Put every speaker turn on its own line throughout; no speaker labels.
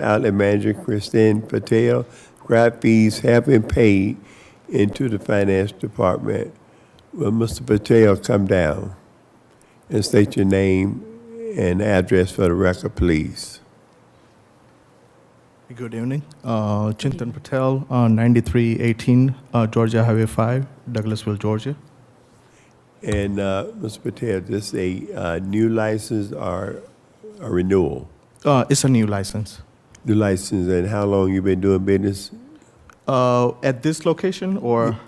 Outlet Manager Christine Patel, grant fees have been paid into the Finance Department. Will Mr. Patel come down and state your name and address for the record, please?
Good evening. Uh, Chintan Patel, uh, 9318 uh, Georgia Highway 5, Douglasville, Georgia.
And, uh, Mr. Patel, this a, uh, new license or a renewal?
Uh, It's a new license.
New license, and how long you been doing business?
Uh, At this location, or,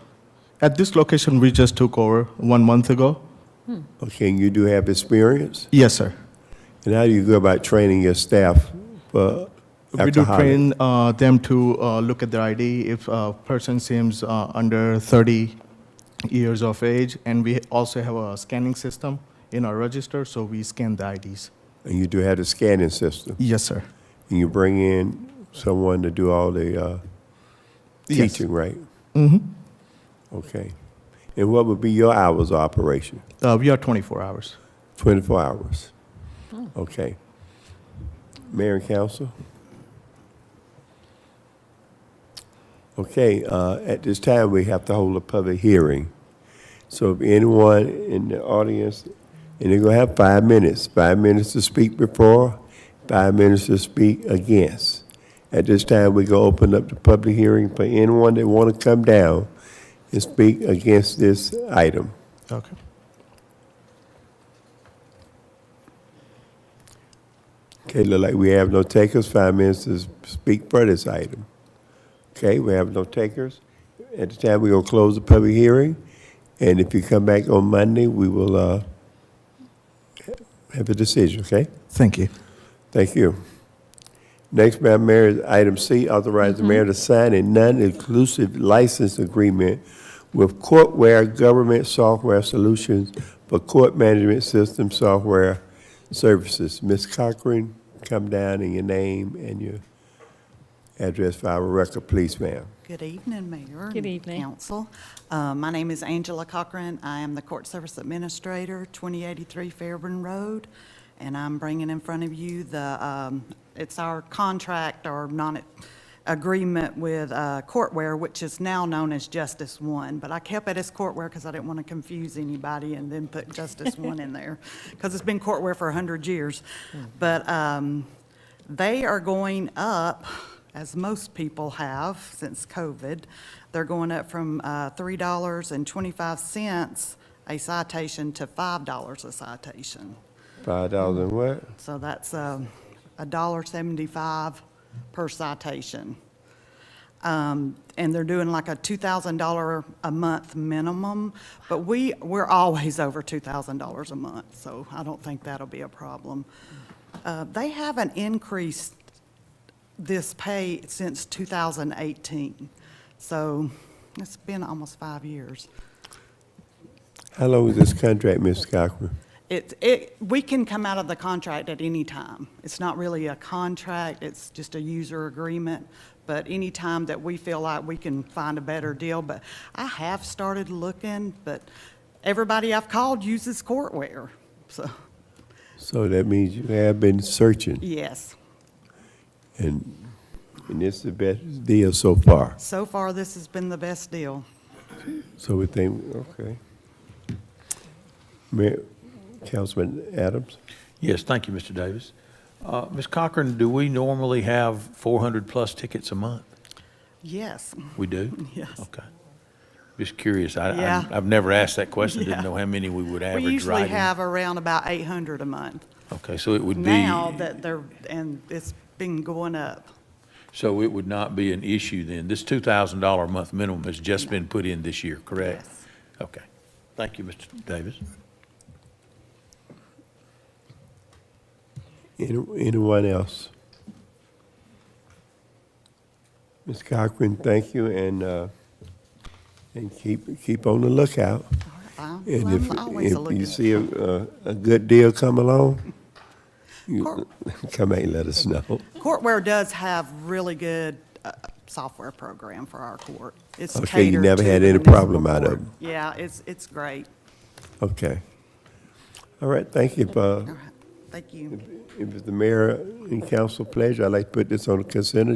at this location, we just took over one month ago?
Okay, you do have experience?
Yes, sir.
And how do you go about training your staff for
We do
alcoholic?
train uh, them to uh, look at their ID if a person seems uh, under 30 years of age, and we also have a scanning system in our register, so we scan the IDs.
And you do have the scanning system?
Yes, sir.
And you bring in someone to do all the uh,
Yes.
teaching, right?
hmm
Okay. And what would be your hours of operation?
Uh, We are 24 hours.
24 hours? Okay. Mayor and council? Okay, uh, at this time, we have to hold a public hearing. So if anyone in the audience, and they're going to have five minutes, five minutes to speak before, five minutes to speak against. At this time, we're going to open up the public hearing for anyone that want to come down and speak against this item.
Okay.
Okay, look like we have no takers, five minutes to speak for this item. Okay, we have no takers. At the time, we're gonna close the public hearing, and if you come back on Monday, we will, uh, have a decision, okay?
Thank you.
Thank you. Next, Madam Mayor, is item C, authorize the mayor to sign a non-inclusive license agreement with Courtware Government Software Solutions for court management system software services. Ms. Cochran, come down in your name and your address for our record, please, ma'am.
Good evening, Mayor.
Good
and
evening.
Council. Uh, My name is Angela Cochran. I am the Court Service Administrator, 2083 Fairburn Road, and I'm bringing in front of you the, um, it's our contract or non-agreement with uh, Courtware, which is now known as Justice One, but I kept it as Courtware because I didn't want to confuse anybody and then put Justice One in there, because it's been Courtware for 100 years.
Hmm.
But um, they are going up, as most people have since COVID, they're going up from uh, $3.25 a citation to $5 a citation.
Five dollars and what?
So that's um, a dollar seventy-five per citation. Um, And they're doing like a $2,000 a month minimum, but we, we're always over $2,000 a month, so I don't think that'll be a problem. Uh, They haven't increased this pay since 2018, so it's been almost five years.
How long is this contract, Ms. Cochran?
It, it, we can come out of the contract at any time. It's not really a contract, it's just a user agreement. But any time that we feel like we can find a better deal, but I have started looking, but everybody I've called uses courtware. So,
So that means you have been searching,
yes,
and, and this is the best deal so far.
so far this has been the best deal.
So we think, okay. Mayor, Councilman Adams?
Yes, thank you, Mr. Davis. Uh, Ms. Cochran, do we normally have 400-plus tickets a month?
Yes,
We do?
Yes.
Okay. Just curious. I-
Yeah.
I- I've never asked that question,
Yeah.
didn't know how many we would average
we
writing.
usually have around about 800 a month.
Okay, so it would
Now
be,
that they're, and it's been going up.
so it would not be an issue then. This $2,000 a month minimum has just been put in this year, correct?
Yes.
Okay. Thank you, Mr. Davis.
Any- Anyone else? Ms. Cochran, thank you, and, uh, and keep, keep on the lookout.
I'm
And if,
I'm always
if you
looking.
see a, a a good deal come along, you
Cor-
come and let us know.
Courtware does have really good uh, software program for our court. It's
Okay, you
catered
never
to
had
the
any problem
municipal
out of
court.
it.
Yeah, it's, it's great.
Okay. All right, thank you, uh, Bob.
All right. Thank you.
If it's the mayor and council pleasure, I'd like to put this on the consent